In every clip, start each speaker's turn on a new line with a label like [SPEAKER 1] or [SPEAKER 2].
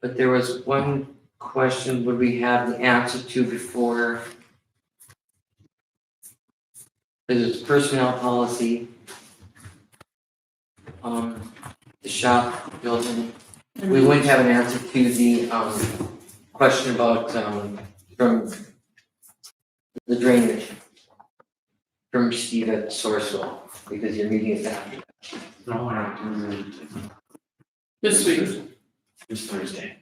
[SPEAKER 1] But there was one question, would we have the answer to before? Because it's personnel policy. Um, the shop building, we wouldn't have an answer to the, um, question about, um, from the drainage from Steve at Sourcewell, because your meeting is after.
[SPEAKER 2] No, I don't do it.
[SPEAKER 3] This week,
[SPEAKER 2] This Thursday.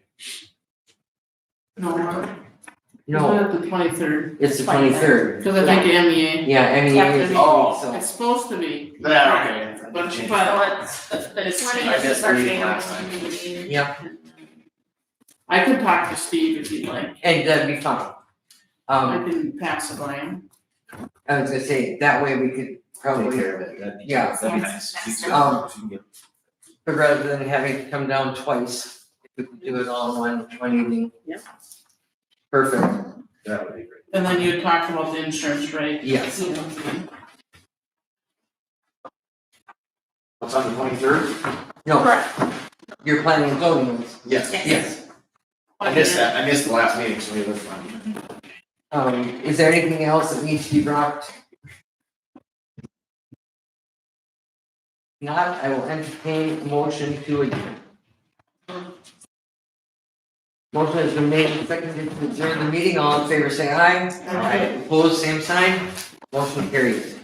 [SPEAKER 3] no, Mark.
[SPEAKER 1] No,
[SPEAKER 3] It's not the twenty-third,
[SPEAKER 1] it's the twenty-third.
[SPEAKER 3] because I think MEA,
[SPEAKER 1] Yeah,
[SPEAKER 4] Yeah,
[SPEAKER 1] MEA is,
[SPEAKER 4] the-
[SPEAKER 2] Oh.
[SPEAKER 1] so.
[SPEAKER 3] it's supposed to be,
[SPEAKER 2] Yeah, okay.
[SPEAKER 3] but,
[SPEAKER 2] Change.
[SPEAKER 3] but
[SPEAKER 4] It's
[SPEAKER 3] it's,
[SPEAKER 4] twenty
[SPEAKER 2] I
[SPEAKER 4] is
[SPEAKER 2] guess
[SPEAKER 4] our
[SPEAKER 2] we
[SPEAKER 4] annual
[SPEAKER 2] last time.
[SPEAKER 4] meeting.
[SPEAKER 1] Yeah,
[SPEAKER 3] I could talk to Steve if you'd like,
[SPEAKER 1] and that'd be fine.
[SPEAKER 3] I
[SPEAKER 1] Um,
[SPEAKER 3] can pass it by him.
[SPEAKER 1] I was gonna say, that way we could
[SPEAKER 2] Take
[SPEAKER 1] probably,
[SPEAKER 2] care of it, that'd be,
[SPEAKER 1] Yeah.
[SPEAKER 2] that'd be nice.
[SPEAKER 1] that's-
[SPEAKER 2] Um, Keep it
[SPEAKER 4] That's-
[SPEAKER 2] up. If you can get-
[SPEAKER 1] but rather than having to come down twice, if we could do it all in one, one evening.
[SPEAKER 3] Yeah.
[SPEAKER 1] Perfect,
[SPEAKER 2] That would be great.
[SPEAKER 3] And then you talked about the insurance rate.
[SPEAKER 1] yes.
[SPEAKER 2] What's on the twenty-third?
[SPEAKER 1] No,
[SPEAKER 4] Correct.
[SPEAKER 1] you're planning on zoning, ones.
[SPEAKER 2] Yes.
[SPEAKER 1] yes.
[SPEAKER 2] I missed that, I missed the last meeting, so we were fine.
[SPEAKER 1] Um, is there anything else that needs to be brought? Not, I will entertain a motion to adjourn. Motion has been made and seconded to adjourn the meeting. All in favor, say aye.
[SPEAKER 3] Aye.
[SPEAKER 1] Opposed, same sign. Motion carries.